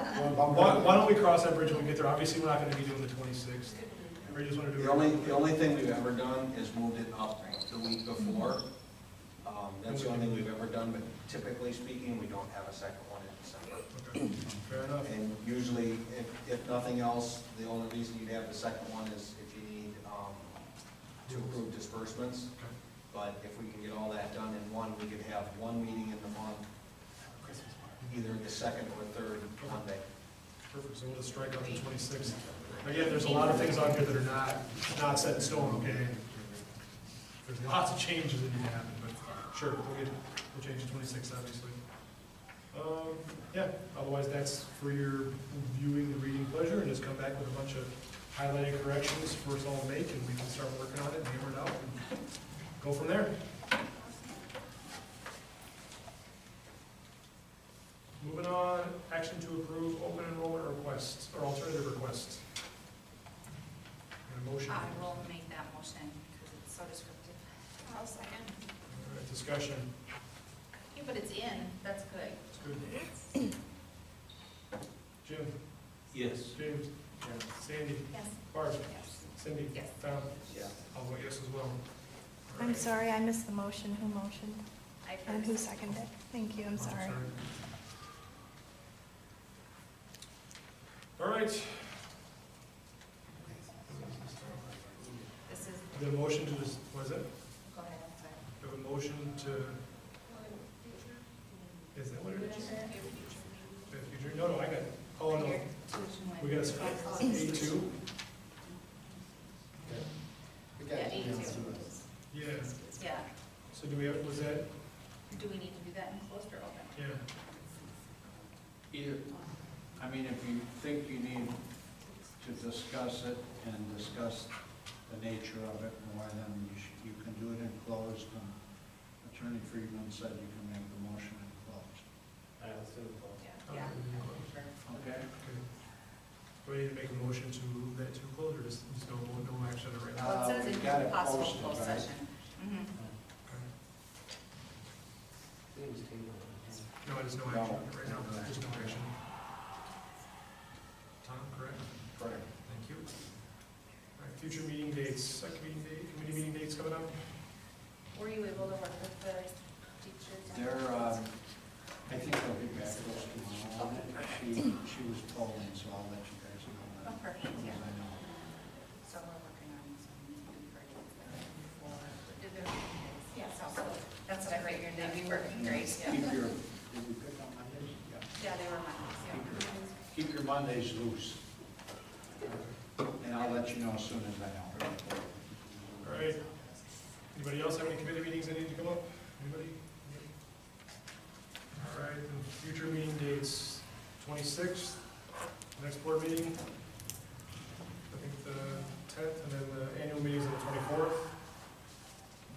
Why, why don't we cross that bridge when we get there? Obviously, we're not gonna be doing the twenty-sixth. We just wanna do. it- The only, the only thing we've ever done is moved it up the week before. Um, That's the only thing we've ever done, but typically speaking, we don't have a second one in December. Okay, Fair enough. And usually, if, if nothing else, the only reason you'd have the second one is if you need um, to approve disbursements. Okay. But if we can get all that done in one, we could have one meeting in the month, either the second or third Monday. Perfect, so we'll just strike out the twenty-sixth. Again, there's a lot of things on here that are not, not set in stone, okay? There's lots of changes that need to happen, but sure, we'll get, we'll change the twenty-sixth, obviously. Um, yeah, otherwise that's for your viewing and reading pleasure, and just come back with a bunch of highlighted corrections for us all to make, and we can start working on it, and hammer it out, and go from there. Moving on, action to approve open enrollment requests, or alternative requests. And a motion. I will make that motion because it's so descriptive. I'll second. All right, Discussion, Yeah, but it's in, that's good. it's good. Jim, Yes. James, Sandy, Yes. Barb, Yes. Cindy, Yes. Tom, Yeah. I'll vote yes as well. All I'm right. sorry, I missed the motion. Who motioned? I And who first. seconded? Thank you, I'm sorry. All right, This is, the motion to, dis- what is it? go ahead, I'm sorry. We have a motion to, is that what it is? If you drew- No, no, I got it. Oh, no, Here, tuition went- we got a, A two? Yeah, eight two. Yeah, Yeah, so do we have, was that, do we need to do that in closed or open? yeah, Either, I mean, if you think you need to discuss it and discuss the nature of it more, then you should, you can do it in closed. and Attorney Friedman said you can make the motion in closed, Yeah. Okay. Yeah. Sure. okay. okay? Do I need to make a motion to that to close, or just, just no, no action right now? Well, it Uh, says we it's gotta possible post it, closed right? session. Mhm. Okay. No, there's no action on it right now, there's no action. Tom, correct? Correct. Thank you. All right, future meeting dates, second meeting date, committee meeting dates coming up? Were you able to work with the teachers? on- There, um, uh, I think I'll be back to us tomorrow on it. She, she was polling, so I'll let you guys know Oh, that. perfect, because yeah. I know. So we're working on some versions there for. Yeah, so that's what I write your name, we work in grades, yeah. Keep your, did we pick up on this? Yeah. Yeah, they were Mondays, Keep your Mondays loose. And I'll let you know as soon as I know. All right. Anybody else have any committee meetings that need to come up? Anybody? All right, then future meeting dates, twenty-sixth, next board meeting, I think the tenth, and then the annual meeting is on the twenty-fourth.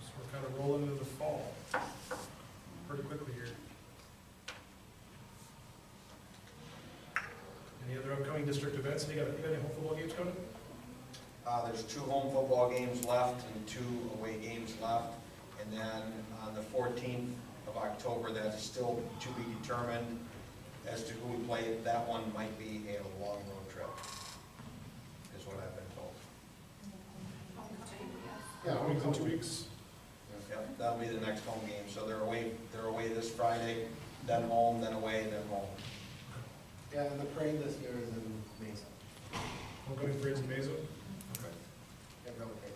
So we're kind of rolling into the fall pretty quickly here. Any other upcoming district events? You got, you got any home football games coming? Uh, there's two home football games left and two away games left. And then on the fourteenth of October, that is still to be determined as to who we play. That one might be a long road trip, is what I've been told. Yeah. Weeks in two weeks? Yep, that'll be the next home game. So they're away, they're away this Friday, then home, then away, then home. Yeah, and the parade this year is in Mason. Homecoming parade's in Mazo? Okay. Yeah, go with it.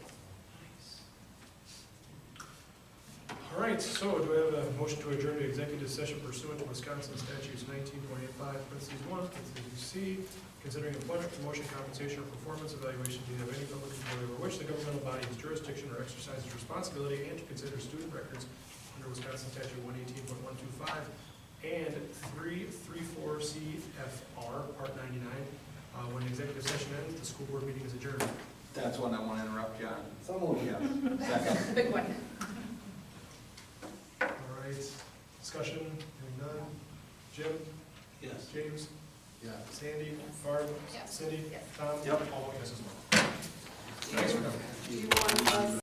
All right, so do I have a motion to adjourn to executive session pursuant to Wisconsin statutes nineteen point eight five, parentheses one, parentheses C, considering employment, promotion, compensation, or performance evaluation data of any public employee over which the governmental body has jurisdiction or exercises responsibility, and to consider student records under Wisconsin statute one eighteen point one two five and three three four CFR, part ninety-nine. Uh, when the executive session ends, the school board meeting is adjourned. That's one I want to interrupt you on. Someone. Yeah. Second. yeah. Big one. All right, discussion, hearing none. Jim? Yes. James? Yeah. Sandy, Barb, Yes. Cindy, Yes. Tom? Yep. All vote yes as well. Thanks for coming.